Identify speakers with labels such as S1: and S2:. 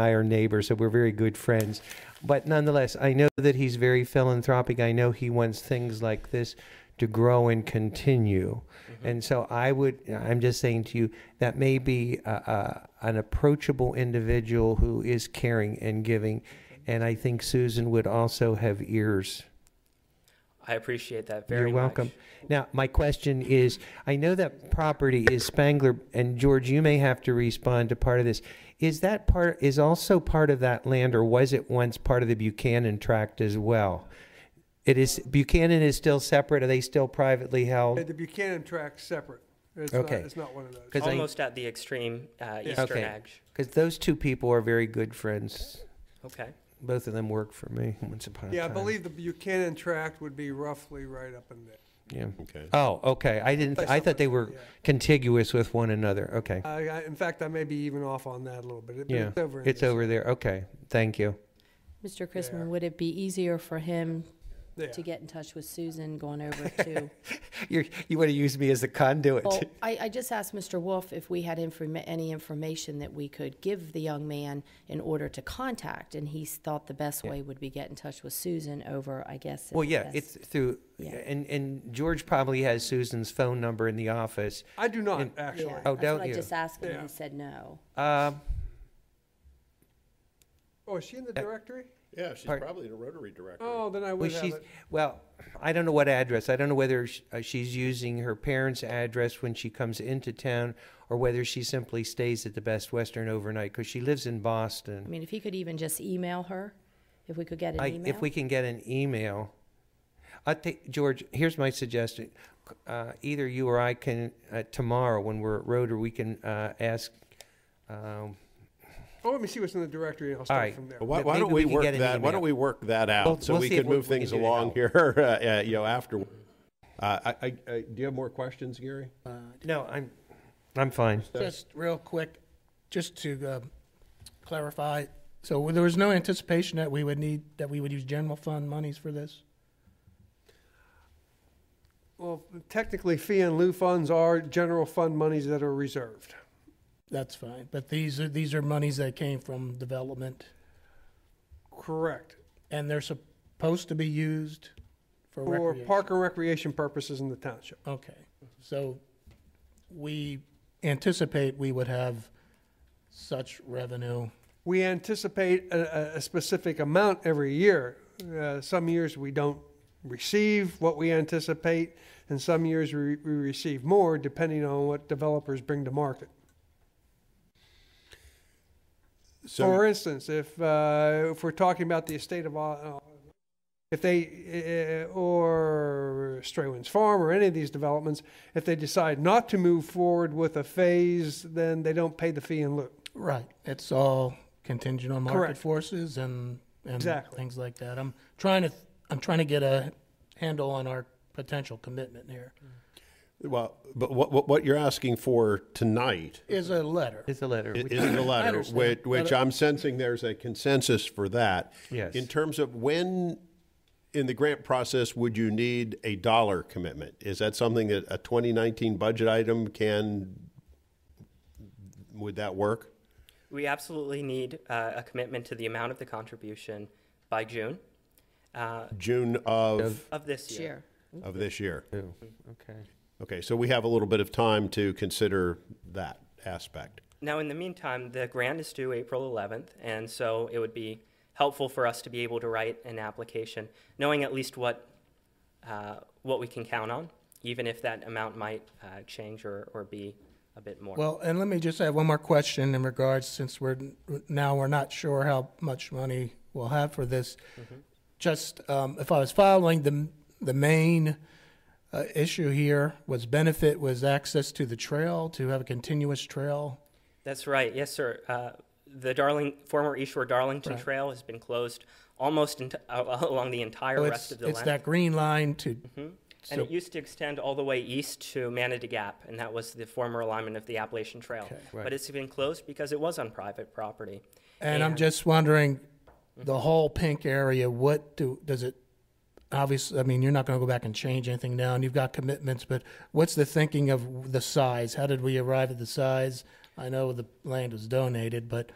S1: I are neighbors, so we're very good friends. But nonetheless, I know that he's very philanthropic. I know he wants things like this to grow and continue. And so I would, I'm just saying to you, that may be a, a, an approachable individual who is caring and giving. And I think Susan would also have ears.
S2: I appreciate that
S1: You're
S2: very much.
S1: welcome. Now, my question is, I know that property is Spangler, and George, you may have to respond to part of this. Is that part, is also part of that land, or was it once part of the Buchanan tract as well? It is, Buchanan is still separate, are they still privately
S3: Yeah,
S1: held?
S3: The Buchanan track's separate. It's not,
S1: Okay.
S3: it's not one of those.
S1: 'Cause I-
S2: Almost at the extreme uh,
S3: Yeah.
S2: eastern
S1: Okay.
S2: edge.
S1: Because those two people are very good friends.
S2: Okay.
S1: Both of them worked for me once upon a time.
S3: Yeah, I believe the Buchanan tract would be roughly right up in there.
S1: Yeah.
S4: Okay.
S1: Oh, okay, I didn't, I thought they were
S3: Yeah.
S1: contiguous with one another, okay.
S3: I, I, in fact, I may be even off on that a little bit. It- but
S1: Yeah,
S3: it's over. in
S1: it's
S3: this.
S1: over there, okay, thank you.
S5: Mr.
S3: Yeah.
S5: Chrisman, would it be easier for him
S3: Yeah.
S5: to get in touch with Susan going over to?
S1: You're, you want to use me as a conduit?
S5: Well, I, I just asked Mr. Wolf if we had informa- any information that we could give the young man in order to contact, and he s- thought the best way would be get in touch with Susan over, I guess.
S1: Well, yeah,
S5: that's-
S1: it's through,
S5: Yeah.
S1: and, and George probably has Susan's phone number in the office.
S3: I do not,
S1: In-
S5: Yeah,
S3: actually.
S1: Oh,
S5: that's
S1: don't
S5: what
S1: you?
S5: I just asked him, and
S3: Yeah.
S5: he said no.
S1: Um,
S3: Oh, is she in the directory?
S4: Yeah, she's
S1: Part-
S4: probably the Rotary director.
S3: Oh, then I
S1: Uh, well,
S3: would have
S1: she's,
S3: it.
S1: well, I don't know what address. I don't know whether sh- uh, she's using her parents' address when she comes into town or whether she simply stays at the Best Western overnight because she lives in
S5: I
S1: Boston.
S5: mean, if he could even just email her, if we could get an
S1: I,
S5: email.
S1: if we can get an email, I think, George, here's my suggestion. C- Uh, either you or I can, uh, tomorrow when we're at Roder, we can uh, ask, um,
S3: Oh, let me see what's in the directory, and I'll start
S1: right.
S3: from there.
S4: Well, Why,
S1: But
S4: why
S1: maybe
S4: don't
S1: we
S4: we
S1: can
S4: work
S1: get an
S4: that? Why
S1: email.
S4: don't we work that
S1: We'll-
S4: out so
S1: we'll
S4: we
S1: see
S4: can
S1: if we-
S4: move
S1: we can
S4: things
S1: do that.
S4: along here, uh, uh, you know, after. Uh, I, I, I, do you have more questions, Gary?
S1: no, I'm, I'm fine.
S6: Just real quick, just to uh, clarify, so there was no anticipation that we would need, that we would use general fund monies for this?
S3: Well, technically, fee and lieu funds are general fund monies that are reserved.
S6: That's fine, but these are, these are monies that came from development,
S3: Correct.
S6: and they're supposed to be used for
S3: For
S6: recreation.
S3: park and recreation purposes in the township.
S6: Okay, so we anticipate we would have such revenue.
S3: We anticipate a, a- a specific amount every year. Uh, some years we don't receive what we anticipate, and some years we, we receive more depending on what developers bring to market. For
S4: So,
S3: instance, if uh, if we're talking about the estate of, uh, if they uh, or Straywinds Farm or any of these developments, if they decide not to move forward with a phase, then they don't pay the fee in lieu.
S6: Right. It's all contingent on market
S3: Correct.
S6: forces and, and
S3: Exactly.
S6: things like that. I'm trying to, I'm trying to get a handle on our potential commitment here.
S3: Mm-hmm.
S4: well, but what, what, what you're asking for tonight
S6: Is a letter.
S1: It's a letter.
S4: i- is the letter,
S6: understand.
S4: which, which
S6: Letter.
S4: I'm sensing there's a consensus for that.
S1: Yes.
S4: In terms of when in the grant process would you need a dollar commitment? Is that something that a 2019 budget item can, would that work?
S2: We absolutely need uh, a commitment to the amount of the contribution by June uh,
S4: June of,
S2: of this year.
S5: Sure.
S4: of this year?
S1: Okay.
S4: Okay, so we have a little bit of time to consider that aspect.
S2: Now, in the meantime, the grant is due April 11th, and so it would be helpful for us to be able to write an application, knowing at least what, uh, what we can count on, even if that amount might uh, change or, or be a bit more.
S6: Well, and let me just add one more question in regards, since we're, now we're not sure how much money we'll have for this.
S3: Mm-hmm.
S6: Just, um, if I was following, the, the main, uh, issue here was benefit was access to the trail, to have a continuous trail.
S2: That's right, yes, sir. Uh, the Darling, former East Shore Darlington Trail has been closed almost ent- uh, along the entire
S6: So
S2: rest
S6: Oh, it's,
S2: of the
S6: it's
S2: length.
S6: that green line to
S3: Mm-hmm.
S2: And it used to extend all the way east to Manatee Gap, and that was the former alignment of the Appalachian Trail. But it's been closed because it was on private property.
S6: And I'm just wondering, the whole pink area, what do, does it, obviously, I mean, you're not gonna go back and change anything now, and you've got commitments, but what's the thinking of the size? How did we arrive at the size? I know the land was donated, but